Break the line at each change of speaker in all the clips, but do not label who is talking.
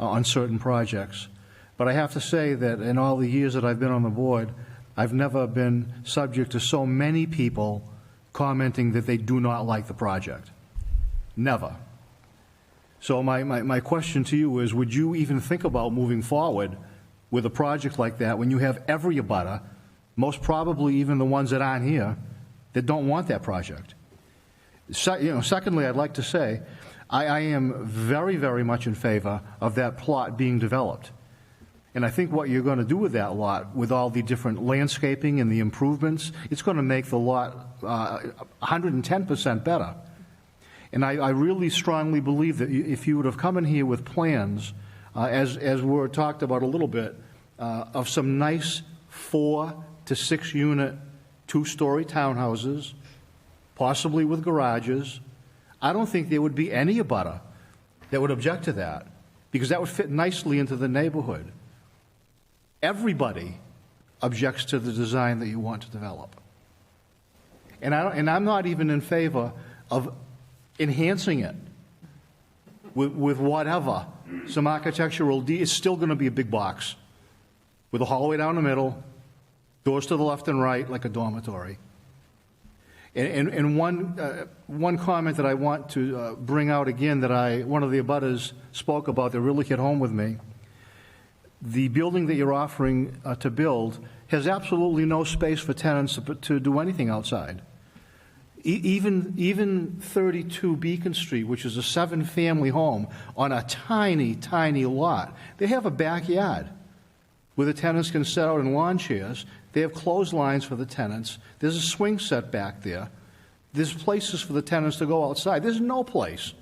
uh, on certain projects. But I have to say that in all the years that I've been on the board, I've never been subject to so many people commenting that they do not like the project. Never. So my, my, my question to you is, would you even think about moving forward with a project like that when you have every abutter, most probably even the ones that aren't here, that don't want that project? Se- you know, secondly, I'd like to say, I, I am very, very much in favor of that plot being developed. And I think what you're going to do with that lot, with all the different landscaping and the improvements, it's going to make the lot uh, 110% better. And I, I really strongly believe that you- if you would have come in here with plans, uh, as, as were talked about a little bit, uh, of some nice four to six unit, two-story townhouses, possibly with garages, I don't think there would be any abutter that would object to that, because that would fit nicely into the neighborhood. Everybody objects to the design that you want to develop. And I, don't- and I'm not even in favor of enhancing it with, with whatever, some architectural D, it's still gonna be a big box with a hallway down the middle, doors to the left and right, like a dormitory. And, and, and one, uh, one comment that I want to uh, bring out again that I, one of the abutters spoke about that really hit home with me. The building that you're offering uh, to build has absolutely no space for tenants to, put- to do anything outside. E- Even, even 32 Beacon Street, which is a seven-family home on a tiny, tiny lot, they have a backyard where the tenants can sit out in lawn chairs. They have clotheslines for the tenants. There's a swing set back there. There's places for the tenants to go outside. There's no place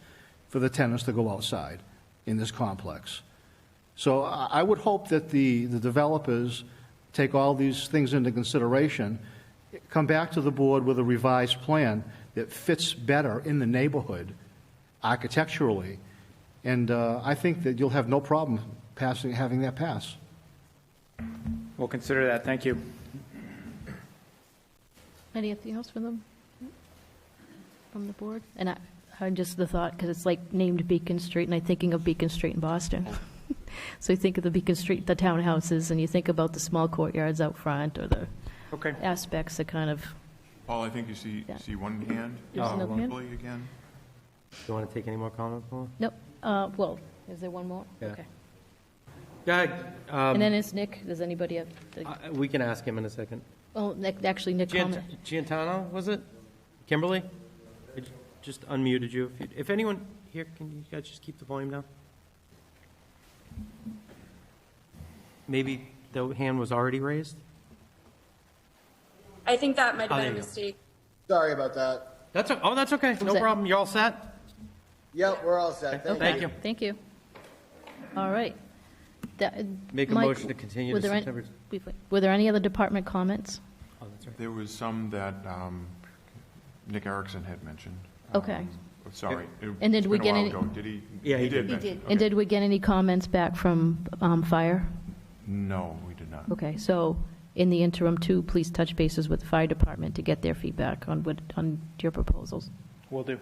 for the tenants to go outside in this complex. So I I would hope that the, the developers take all these things into consideration, come back to the board with a revised plan that fits better in the neighborhood architecturally, and uh, I think that you'll have no problem passing, having that pass.
We'll consider that, thank you.
Anything else from them? From the board? And I, I just the thought, because it's like named Beacon Street, and I'm thinking of Beacon Street in Boston. So you think of the Beacon Street, the townhouses, and you think about the small courtyards out front, or the
Okay,
aspects that kind of,
Paul, I think you see,
Yeah.
see one hand.
Oh,
There's another hand?
Probably again.
Do you want to take any more comments, Paul?
nope, uh, well, is there one more?
Yeah. Um,
Okay.
Yeah,
And then it's Nick, does anybody have, the-
we can ask him in a second.
oh, Nick- actually, Nick
Gian-
comment.
Giantano, was it? Kimberly? I j- just unmuted you. If you- If anyone here, can you guys just keep the volume down? Maybe the hand was already raised?
I think that might
Oh,
have
there
been a
you go.
mistake.
Sorry about that.
That's, o- oh, that's okay, no
that?
problem, you're all set?
Yep, we're all set. Thank you.
Thank you.
Thank you. All right. That-
Make a
Mike,
motion to continue
were
to
there an-
September-
wait, wait. Were there any other department comments?
Oh, that's right.
There was some that um, Nick Erickson had mentioned.
Uh,
Okay.
Um, Sorry. it-
And did
it's
we
been a
get
while
any-
ago. Did he?
Yeah, he
He did.
did.
And
mention- okay.
did we get any comments back from um, fire?
No, we did not.
Okay, so in the interim, too, please touch bases with the fire department to get their feedback on what, on your proposals.
will do.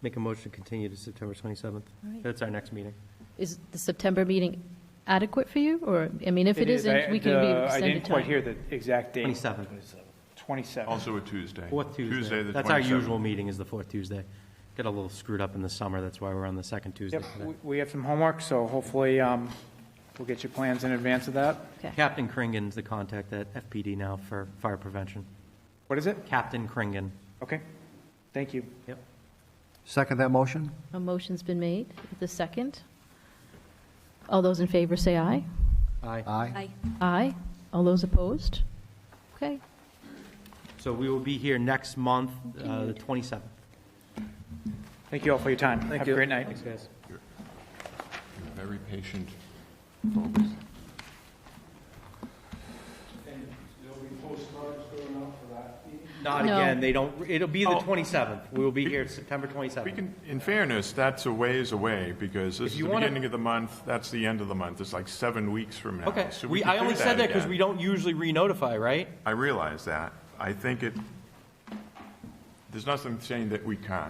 Make a motion to continue to September 27th.
All right.
That's our next meeting.
Is the September meeting adequate for you, or, I mean, if it
I-
isn't, we can
uh,
be
I
extended
didn't quite
time.
hear the exact date.
27th.
27.
Also a Tuesday.
Fourth Tuesday.
Tuesday, the 27th.
That's our usual meeting, is the fourth Tuesday. Got a little screwed up in the summer, that's why we're on the second Tuesday
Yep,
today.
we- we have some homework, so hopefully um, we'll get your plans in advance of that.
Okay.
Captain Kringan's the contact at FPD now for fire prevention.
What is it?
Captain Kringan.
Okay, thank you.
Yep.
Second that motion?
A motion's been made, the second. All those in favor say aye.
Aye.
Aye.
Aye. All those opposed? Okay,
So we will be here next month, uh, the 27th.
Thank you all for your time. Have a great night.
Thanks, guys.
Very patient.
Not
No.
again, they don't, it'll be the
Oh.
27th. We will be here September 27th.
We can, in fairness, that's a ways away because this is
you
the
wanna-
beginning of the month, that's the end of the month. It's like seven weeks from now.
Okay,
So
we,
could
I
do
only said that because
again.
we don't usually re-notify, right?
I realize that. I think it, there's nothing saying that we can't.